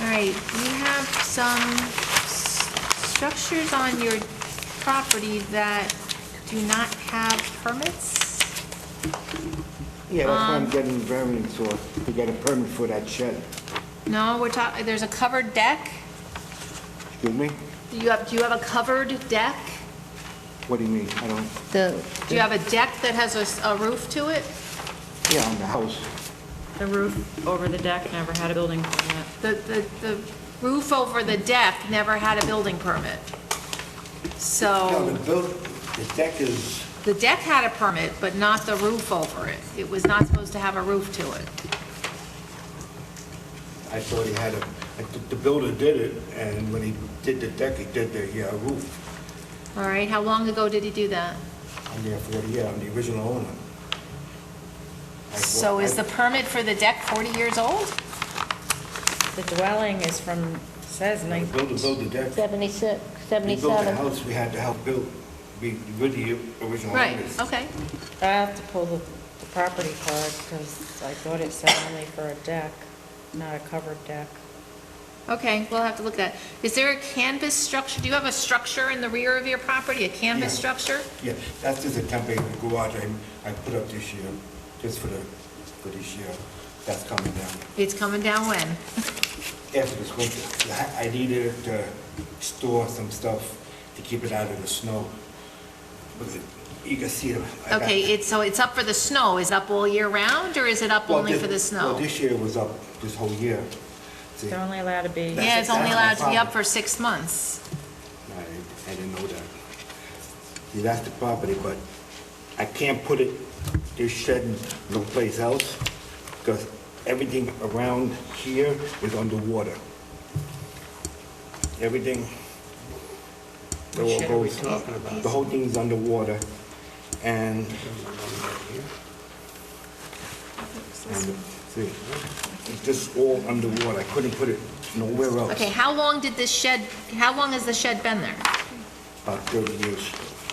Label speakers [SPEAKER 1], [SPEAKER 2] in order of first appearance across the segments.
[SPEAKER 1] All right, we have some s- structures on your property that do not have permits.
[SPEAKER 2] Yeah, that's what I'm
[SPEAKER 1] Um,
[SPEAKER 2] getting variance for, to get a permit for that shed.
[SPEAKER 1] No, we're talking, there's a covered deck.
[SPEAKER 2] Excuse me?
[SPEAKER 1] Do you have, do you have a covered deck?
[SPEAKER 2] What do you mean? I don't,
[SPEAKER 3] The,
[SPEAKER 1] Do you have a deck that has a s- a roof to it?
[SPEAKER 2] yeah, on the house.
[SPEAKER 4] The roof over the deck never had a building permit.
[SPEAKER 1] The, the, the roof over the deck never had a building permit.
[SPEAKER 5] No, the
[SPEAKER 1] So
[SPEAKER 5] built, the deck is,
[SPEAKER 1] the deck had a permit, but not the roof over it. It was not supposed to have a roof to it.
[SPEAKER 5] I thought he had a, I th- the builder did it, and when he did the deck, he did the uh, roof
[SPEAKER 1] All right, how long ago did he do that?
[SPEAKER 5] on there for the, yeah, on the original owner. I-
[SPEAKER 1] So is the permit for the deck 40 years old?
[SPEAKER 4] The dwelling is from, says
[SPEAKER 5] The
[SPEAKER 4] nineteen,
[SPEAKER 5] builder built the deck.
[SPEAKER 3] 76,
[SPEAKER 5] We built the
[SPEAKER 3] 77.
[SPEAKER 5] house, we had the house built, we, with the original
[SPEAKER 1] Right,
[SPEAKER 5] owners.
[SPEAKER 1] okay.
[SPEAKER 4] I have to pull the the property card because I thought it said only for a deck, not a covered deck.
[SPEAKER 1] Okay, we'll have to look at that. Is there a canvas structure? Do you have a structure in the rear of your property, a canvas
[SPEAKER 5] Yeah.
[SPEAKER 1] structure?
[SPEAKER 5] Yeah, that's just a temporary garage I, I put up this year, just for the, for this year. That's coming down
[SPEAKER 1] It's coming down when?
[SPEAKER 5] after this winter. I I needed it to store some stuff to keep it out of the snow. But it- You can see it. I got-
[SPEAKER 1] Okay, it's, so it's up for the snow. Is it up all year round, or is it up
[SPEAKER 5] Well,
[SPEAKER 1] only
[SPEAKER 5] this-
[SPEAKER 1] for the
[SPEAKER 5] Well,
[SPEAKER 1] snow?
[SPEAKER 5] this year was up, this whole year. See,
[SPEAKER 4] They're
[SPEAKER 5] I
[SPEAKER 4] only allowed to be,
[SPEAKER 1] Yeah, it's only allowed
[SPEAKER 5] that's my
[SPEAKER 1] to be up
[SPEAKER 5] problem.
[SPEAKER 1] for six months.
[SPEAKER 5] I didn't know that. See, that's the property, but I can't put it, this shed in no place else, because everything around here is underwater. Everything. the whole
[SPEAKER 6] shed are we
[SPEAKER 5] goes-
[SPEAKER 6] talking about?
[SPEAKER 5] The whole thing's underwater, and, and, see, it's just all underwater, I couldn't put it nowhere else.
[SPEAKER 1] Okay, how long did this shed, how long has the shed been there?
[SPEAKER 5] About thirty years,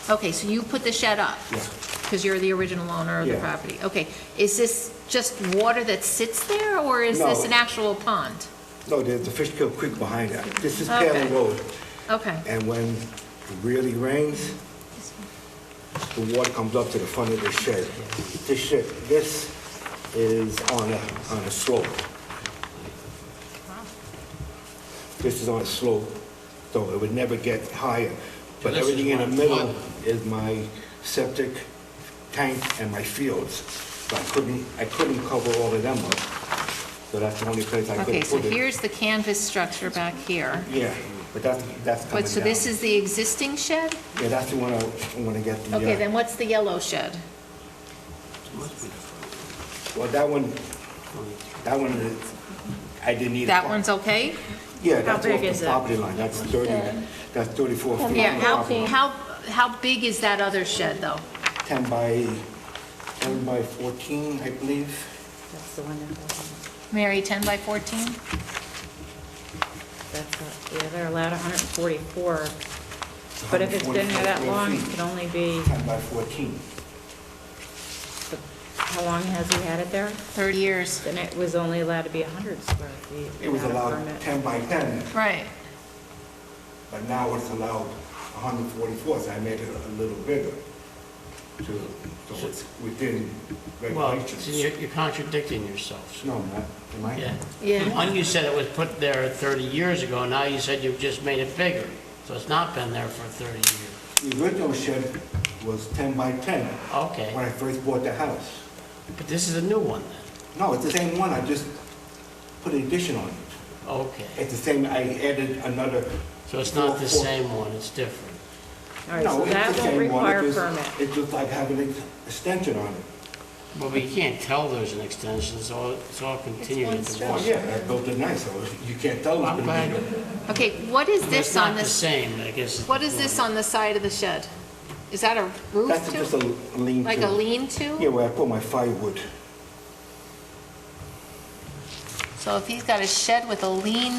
[SPEAKER 1] Okay, so you put the shed up?
[SPEAKER 5] Yeah.
[SPEAKER 1] Because you're the original owner of the
[SPEAKER 5] Yeah.
[SPEAKER 1] property. Okay, is this just water that sits there, or is this
[SPEAKER 5] No.
[SPEAKER 1] an actual pond?
[SPEAKER 5] no, there's the Fishkill Creek behind that, this is
[SPEAKER 1] Okay.
[SPEAKER 5] Palin Road,
[SPEAKER 1] Okay,
[SPEAKER 5] and when it really rains, the water comes up to the front of the shed. This shed, this is on a, on a slope. This is on a slope, so it would never get higher. But
[SPEAKER 6] This is
[SPEAKER 5] everything in the
[SPEAKER 6] my
[SPEAKER 5] middle
[SPEAKER 6] flood.
[SPEAKER 5] is my septic tank and my fields. So I couldn't, I couldn't cover all of them up, so that's the only place I could put it.
[SPEAKER 1] okay, so here's the canvas structure back here.
[SPEAKER 5] Yeah, but that's, that's coming down.
[SPEAKER 1] But, so this is the existing shed?
[SPEAKER 5] Yeah, that's the one I want to get the... uh,
[SPEAKER 1] Okay, then what's the yellow shed?
[SPEAKER 5] Well, that one, that one, is- I didn't need a...
[SPEAKER 1] That
[SPEAKER 5] par-
[SPEAKER 1] one's okay?
[SPEAKER 5] Yeah, that's
[SPEAKER 4] big
[SPEAKER 5] off
[SPEAKER 4] is
[SPEAKER 5] the
[SPEAKER 4] it?
[SPEAKER 5] property line, that's 30, that's 34 feet.
[SPEAKER 3] Yeah,
[SPEAKER 5] from the
[SPEAKER 1] Yeah, how,
[SPEAKER 5] property line.
[SPEAKER 1] how, how big is that other shed, though?
[SPEAKER 5] 10 by, 10 by 14, I believe.
[SPEAKER 4] that's the one that doesn't,
[SPEAKER 1] Mary, 10 by 14?
[SPEAKER 4] that's not, yeah, they're allowed hundred and forty-four. But if it's been there that
[SPEAKER 5] 144
[SPEAKER 4] long, it
[SPEAKER 5] feet.
[SPEAKER 4] can only be,
[SPEAKER 5] 10 by 14.
[SPEAKER 4] how long has he had it there?
[SPEAKER 1] 30 years.
[SPEAKER 4] Then it was only allowed to be hundred square feet.
[SPEAKER 5] It was
[SPEAKER 4] without a
[SPEAKER 5] allowed
[SPEAKER 4] permit.
[SPEAKER 5] 10 by 10,
[SPEAKER 1] Right.
[SPEAKER 5] but now it's allowed 144, so I made it a little bigger to, so it's within
[SPEAKER 6] Well,
[SPEAKER 5] regulations.
[SPEAKER 6] see, you're you're contradicting yourself.
[SPEAKER 5] No, I'm not, am I?
[SPEAKER 6] Yeah.
[SPEAKER 1] Yeah.
[SPEAKER 6] One, you said it was put there 30 years ago, now you said you've just made it bigger. So it's not been there for 30 years.
[SPEAKER 5] The original shed was 10 by 10.
[SPEAKER 6] Okay.
[SPEAKER 5] When I first bought the house.
[SPEAKER 6] But this is a new one then?
[SPEAKER 5] No, it's the same one, I just put an addition on it.
[SPEAKER 6] Okay.
[SPEAKER 5] It's the same, I added another.
[SPEAKER 6] So it's not the
[SPEAKER 5] four- four-
[SPEAKER 6] same one, it's different.
[SPEAKER 4] All right,
[SPEAKER 5] No,
[SPEAKER 4] so
[SPEAKER 5] it's the
[SPEAKER 4] that won't
[SPEAKER 5] same one, it
[SPEAKER 4] require a
[SPEAKER 5] just-
[SPEAKER 4] permit.
[SPEAKER 5] It's just like having an extension on it.
[SPEAKER 6] Well, but you can't tell there's an extension, so it's all continued
[SPEAKER 1] one
[SPEAKER 6] at the
[SPEAKER 1] stretch.
[SPEAKER 5] Oh,
[SPEAKER 6] one.
[SPEAKER 5] yeah, I built it nice, so you can't tell it's
[SPEAKER 6] I'm
[SPEAKER 5] been
[SPEAKER 6] glad,
[SPEAKER 5] bigger.
[SPEAKER 1] Okay, what is this
[SPEAKER 6] it's
[SPEAKER 1] on
[SPEAKER 6] not the
[SPEAKER 1] this,
[SPEAKER 6] same, I guess.
[SPEAKER 1] what is this on the side of the shed? Is that a
[SPEAKER 5] That's just a
[SPEAKER 1] roof to?
[SPEAKER 5] lean-to.
[SPEAKER 1] Like a
[SPEAKER 5] Yeah,
[SPEAKER 1] lean-to?
[SPEAKER 5] where I put my firewood.
[SPEAKER 1] So if he's got a shed with a lean